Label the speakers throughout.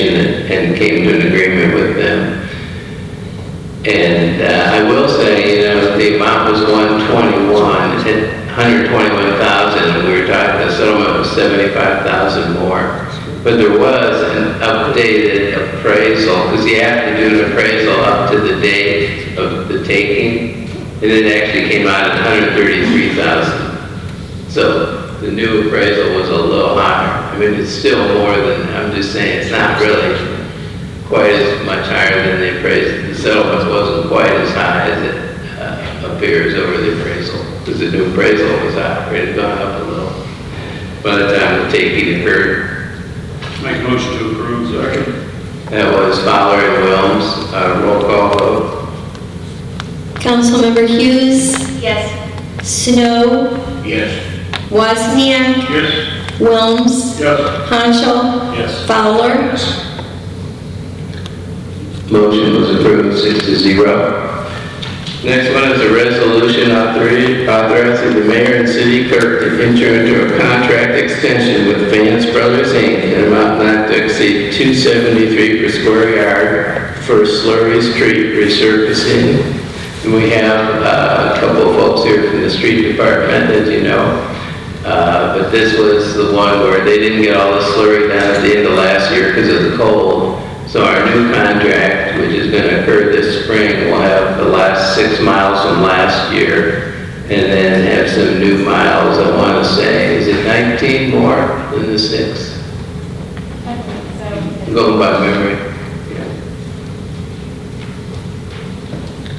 Speaker 1: and came to an agreement with them. And uh, I will say, you know, the amount was 121, it said 121,000, and we were talking, the settlement was 75,000 more. But there was an updated appraisal, because you have to do an appraisal up to the date of the taking, and it actually came out at 133,000. So the new appraisal was a little higher. I mean, it's still more than, I'm just saying, it's not really quite as much higher than the appraisal. The settlement wasn't quite as high as it uh, appears over the appraisal, because the new appraisal was high, it had gone up a little. By the time the taking occurred,
Speaker 2: Make a motion to approve. Second.
Speaker 1: that was Fowler and Wilms, uh, roll call vote.
Speaker 3: Councilmember Hughes,
Speaker 4: Yes.
Speaker 3: Snow,
Speaker 2: Yes.
Speaker 3: Wozniak,
Speaker 2: Yes.
Speaker 3: Wilms,
Speaker 2: Yes.
Speaker 3: Hanschel,
Speaker 2: Yes.
Speaker 3: Fowler.
Speaker 1: Motion was approved, six to zero. Next one is a resolution authori- authorizing the mayor and city clerk to enter into a contract extension with Vance Brothers Inc. in an amount not to exceed two seventy-three per square yard for slurry street resurfacing. And we have uh, a couple of folks here from the street department, as you know. Uh, But this was the one where they didn't get all the slurry down at the end of last year because of the cold. So our new contract, which is going to occur this spring, will have the last six miles from last year, and then have some new miles, I want to say, is it 19 more than the six? Going by memory. Yeah.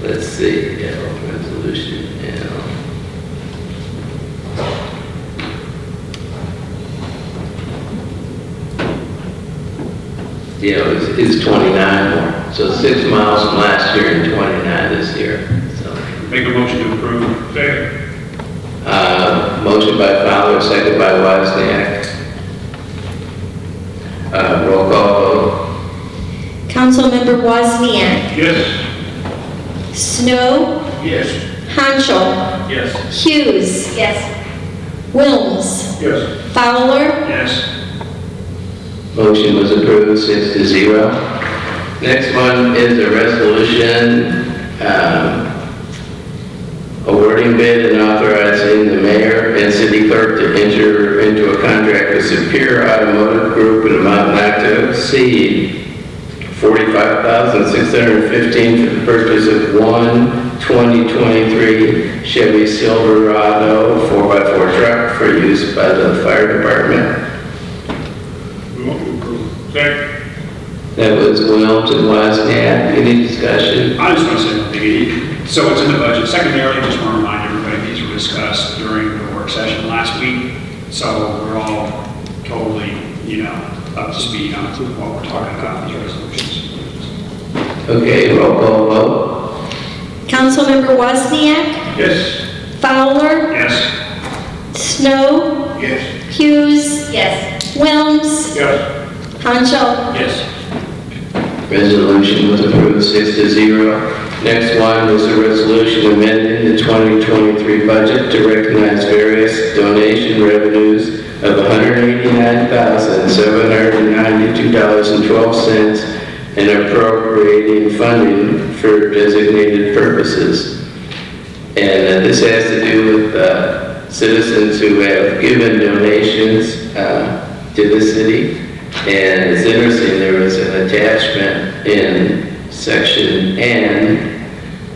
Speaker 1: Let's see, yeah, resolution, yeah. Yeah, it's, it's 29 more, so six miles from last year and 29 this year, so.
Speaker 2: Make a motion to approve. Second.
Speaker 1: Uh, Motion by Fowler, second by Wozniak. Uh, Roll call vote.
Speaker 3: Councilmember Wozniak,
Speaker 2: Yes.
Speaker 3: Snow,
Speaker 2: Yes.
Speaker 3: Hanschel,
Speaker 2: Yes.
Speaker 3: Hughes,
Speaker 4: Yes.
Speaker 3: Wilms,
Speaker 2: Yes.
Speaker 3: Fowler.
Speaker 2: Yes.
Speaker 1: Motion was approved, six to zero. Next one is a resolution um, awarding bid and authorizing the mayor and city clerk to enter into a contract with Superior Automotive Group in amount not to exceed $45,615 for the purchase of one 2023 Chevy Silverado 4x4 truck for use by the fire department.
Speaker 2: We want to approve. Second.
Speaker 1: That was Wilms and Wozniak. Any discussion?
Speaker 2: I just want to say one thing. So it's in the budget. Secondarily, just want to remind everybody, these were discussed during the work session last week. So we're all totally, you know, up to speed on what we're talking about, in these resolutions.
Speaker 1: Okay, roll call vote.
Speaker 3: Councilmember Wozniak,
Speaker 2: Yes.
Speaker 3: Fowler,
Speaker 2: Yes.
Speaker 3: Snow,
Speaker 2: Yes.
Speaker 3: Hughes,
Speaker 4: Yes.
Speaker 3: Wilms,
Speaker 2: Yes.
Speaker 3: Hanschel.
Speaker 2: Yes.
Speaker 1: Resolution was approved six to zero. Next one was a resolution amending the 2023 budget to recognize various donation revenues of $189,792.12 and appropriating funding for designated purposes. And uh, this has to do with uh, citizens who have given donations uh, to the city. And it's interesting, there was an attachment in section N,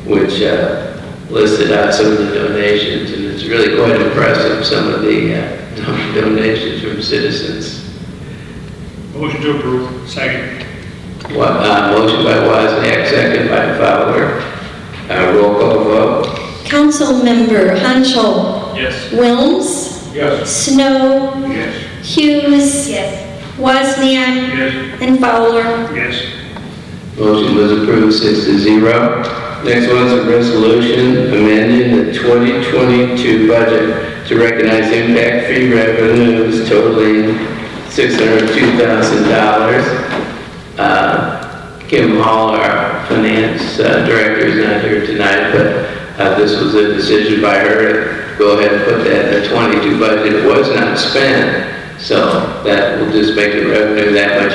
Speaker 1: which uh, listed out some of the donations, and it's really quite impressive, some of the uh, donations from citizens.
Speaker 2: Motion to approve. Second.
Speaker 1: Wa- uh, Motion by Wozniak, second by Fowler. Uh, Roll call vote.
Speaker 3: Councilmember Hanschel,
Speaker 2: Yes.
Speaker 3: Wilms,
Speaker 2: Yes.
Speaker 3: Snow,
Speaker 2: Yes.
Speaker 3: Hughes,
Speaker 4: Yes.
Speaker 3: Wozniak,
Speaker 2: Yes.
Speaker 3: and Fowler.
Speaker 2: Yes.
Speaker 1: Motion was approved six to zero. Next one's a resolution amending the 2022 budget to recognize impact fee revenues totaling $602,000. Uh, Kim Hall, our finance uh, director, is not here tonight, but uh, this was a decision by her. to Go ahead and put that in the 22 budget. It was not spent, so that will just make the revenue that much